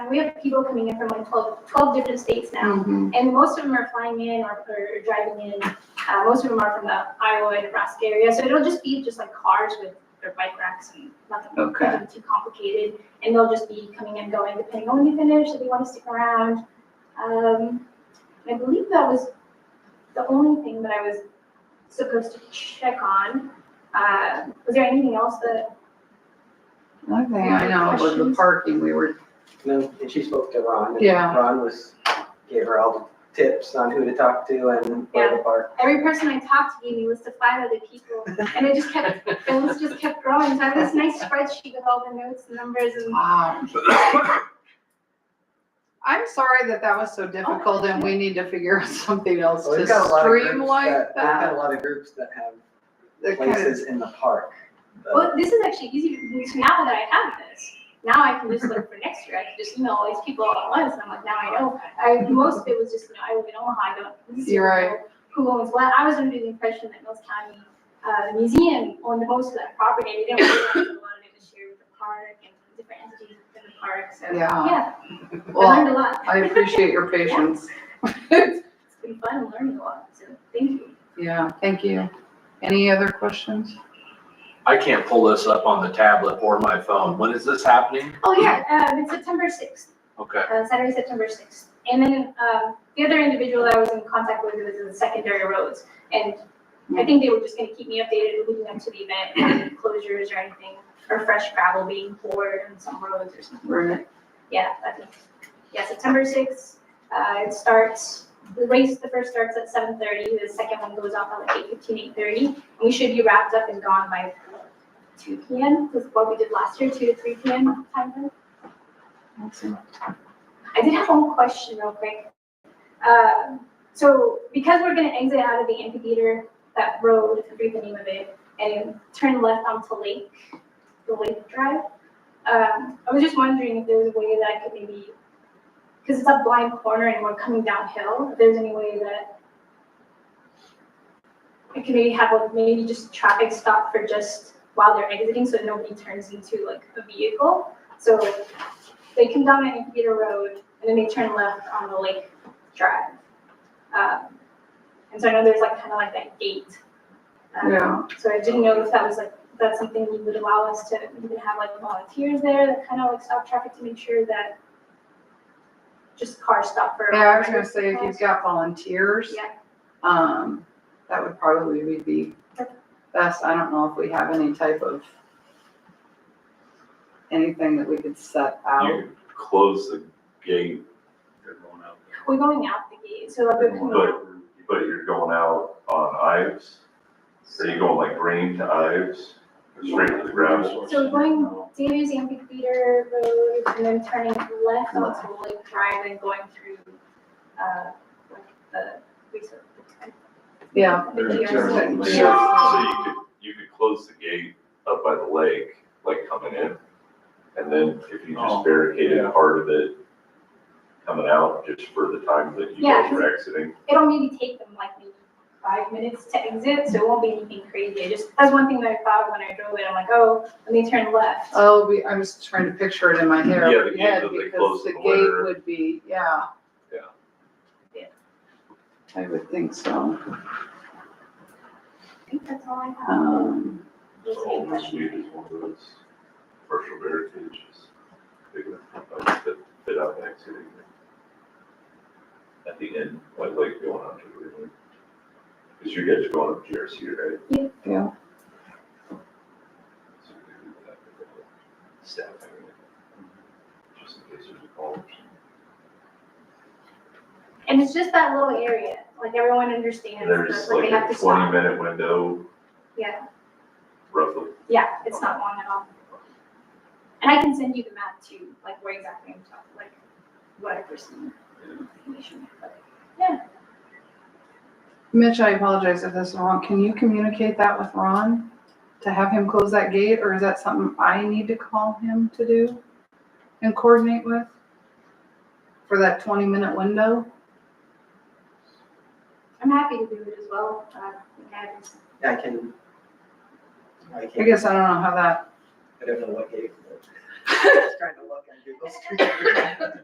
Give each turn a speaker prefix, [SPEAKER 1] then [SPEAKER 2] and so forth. [SPEAKER 1] And we have people coming in from like 12, 12 different states now. And most of them are flying in or, or driving in. Uh, most of them are from the Iowa and Nebraska area. So it'll just be just like cars with their bike racks and nothing
[SPEAKER 2] Okay.
[SPEAKER 1] nothing too complicated. And they'll just be coming and going depending on when you finish, if you want to stick around. Um, I believe that was the only thing that I was supposed to check on. Uh, was there anything else that?
[SPEAKER 2] One thing I know was the
[SPEAKER 1] Questions?
[SPEAKER 2] parking, we were,
[SPEAKER 3] No, and she spoke to Ron. and
[SPEAKER 2] Yeah.
[SPEAKER 3] Ron was, gave her all the tips on who to talk to and where to park.
[SPEAKER 1] Every person I talked to gave me a list of five other people, and it just kept, the list just kept growing. So I have this nice spreadsheet with all the notes and numbers and
[SPEAKER 2] wow. I'm sorry that that was so difficult and we need to figure out something else
[SPEAKER 3] So
[SPEAKER 2] to
[SPEAKER 3] we've got a lot of groups
[SPEAKER 2] streamline
[SPEAKER 3] We've got a
[SPEAKER 2] that.
[SPEAKER 3] lot of groups that have
[SPEAKER 2] They're kind of-
[SPEAKER 3] places in the park. uh,
[SPEAKER 1] Well, this is actually easy to do now that I have this. Now I can just look for next year. I can just email all these people all at once. And I'm like, now I know. I, most of it was just, you know, I live in Omaha. I don't. this is
[SPEAKER 2] You're right.
[SPEAKER 1] Who owns what? I was under the impression that Mills County, uh, Museum owned most of that property. and We didn't realize a lot of it was shared with the park and different entities within the park. So,
[SPEAKER 2] Yeah.
[SPEAKER 1] yeah, I
[SPEAKER 2] Well,
[SPEAKER 1] learned a lot.
[SPEAKER 2] I appreciate your patience.
[SPEAKER 1] It's been fun learning a lot. So thank you.
[SPEAKER 2] Yeah, thank you. Any other questions?
[SPEAKER 4] I can't pull this up on the tablet or my phone. When is this happening?
[SPEAKER 1] Oh, yeah. Uh, it's September 6th.
[SPEAKER 4] Okay,
[SPEAKER 1] uh, Saturday, September sixth. And then, um, the other individual that I was in contact with was in the secondary roads. And I think they were just gonna keep me updated leading up to the event, any closures or anything, or fresh gravel being poured on some roads or something.
[SPEAKER 2] Right.
[SPEAKER 1] Yeah, I think, yeah, September sixth, uh, it starts, the race, the first starts at seven thirty, the second one goes off at like eight fifteen, eight thirty. We should be wrapped up and gone by two P M, is what we did last year, two to three P M time frame. I did have one question real quick. Um, So because we're gonna exit out of the amphitheater, that road, I forget the name of it, and turn left onto Lake, the Lake Drive. Um, I was just wondering if there was a way that I could maybe, because it's a blind corner and we're coming downhill, if there's any way that I could maybe have like maybe just traffic stop for just while they're exiting, so nobody turns into like a vehicle. So they come down at Amphitheater Road and then they turn left on the Lake Drive. Um, and so I know there's like kind of like that gate. Um,
[SPEAKER 2] Yeah.
[SPEAKER 1] So I didn't know if that was like, if that's something you would allow us to even have like volunteers there that kind of like stop traffic to make sure that just cars stop for.
[SPEAKER 2] Yeah, I was gonna say if you've got volunteers.
[SPEAKER 1] Yeah.
[SPEAKER 2] Um, that would probably be best. I don't know if we have any type of anything that we could set out.
[SPEAKER 5] You close the gate. You're going out
[SPEAKER 1] We're going out the gate, so like we're coming out.
[SPEAKER 5] But, but you're going out on Ives? Are you going like green to Ives? Straight to the gravel?
[SPEAKER 1] So we're going Davies Amphitheater Road and then turning left onto Lake Drive and going through, uh, like the research.
[SPEAKER 2] Yeah.
[SPEAKER 1] The
[SPEAKER 5] So you
[SPEAKER 1] DRC.
[SPEAKER 2] Yeah.
[SPEAKER 5] could, you could close the gate up by the lake, like coming in. And then if you
[SPEAKER 4] Oh,
[SPEAKER 5] just barricaded part of it coming out just for the time that you
[SPEAKER 1] Yeah.
[SPEAKER 5] guys are exiting.
[SPEAKER 1] It'll maybe take them like maybe five minutes to exit, so it won't be anything crazy. I just, that's one thing that I thought when I drove it. I'm like, oh, let me turn left.
[SPEAKER 2] Oh, we, I was trying to picture it in my hair,
[SPEAKER 5] Yeah, the gate
[SPEAKER 2] head,
[SPEAKER 5] that they
[SPEAKER 2] because
[SPEAKER 5] close
[SPEAKER 2] the
[SPEAKER 5] in the
[SPEAKER 2] gate
[SPEAKER 5] winter.
[SPEAKER 2] would be, yeah.
[SPEAKER 5] Yeah.
[SPEAKER 1] Yeah.
[SPEAKER 2] I would think so.
[SPEAKER 1] I think that's all I have.
[SPEAKER 2] Um,
[SPEAKER 1] Those are
[SPEAKER 5] So
[SPEAKER 1] my
[SPEAKER 5] this week
[SPEAKER 1] questions.
[SPEAKER 5] is one of those partial barricades, just big enough to fit out an accident. At the end, like, like going on to the river. Cause you guys are going up GRC, right?
[SPEAKER 1] Yeah.
[SPEAKER 2] Yeah.
[SPEAKER 5] So we can do that with the Staff. area, Just in case there's a call.
[SPEAKER 1] And it's just that little area, like everyone understands,
[SPEAKER 5] There's
[SPEAKER 1] that's like they have
[SPEAKER 5] like a
[SPEAKER 1] to
[SPEAKER 5] twenty
[SPEAKER 1] stop.
[SPEAKER 5] minute window
[SPEAKER 1] Yeah,
[SPEAKER 5] roughly.
[SPEAKER 1] yeah, it's not long at all. And I can send you the map too, like where exactly I'm talking, like what I personally information. but-
[SPEAKER 2] Mitch, I apologize if this is wrong. Can you communicate that with Ron? To have him close that gate, or is that something I need to call him to do and coordinate with? For that twenty minute window?
[SPEAKER 1] I'm happy to do it as well. Uh, I think I have some-
[SPEAKER 3] I can, I
[SPEAKER 2] I
[SPEAKER 3] can,
[SPEAKER 2] guess I don't know how that,
[SPEAKER 3] I don't know what gave. Just trying to look and Google Street View.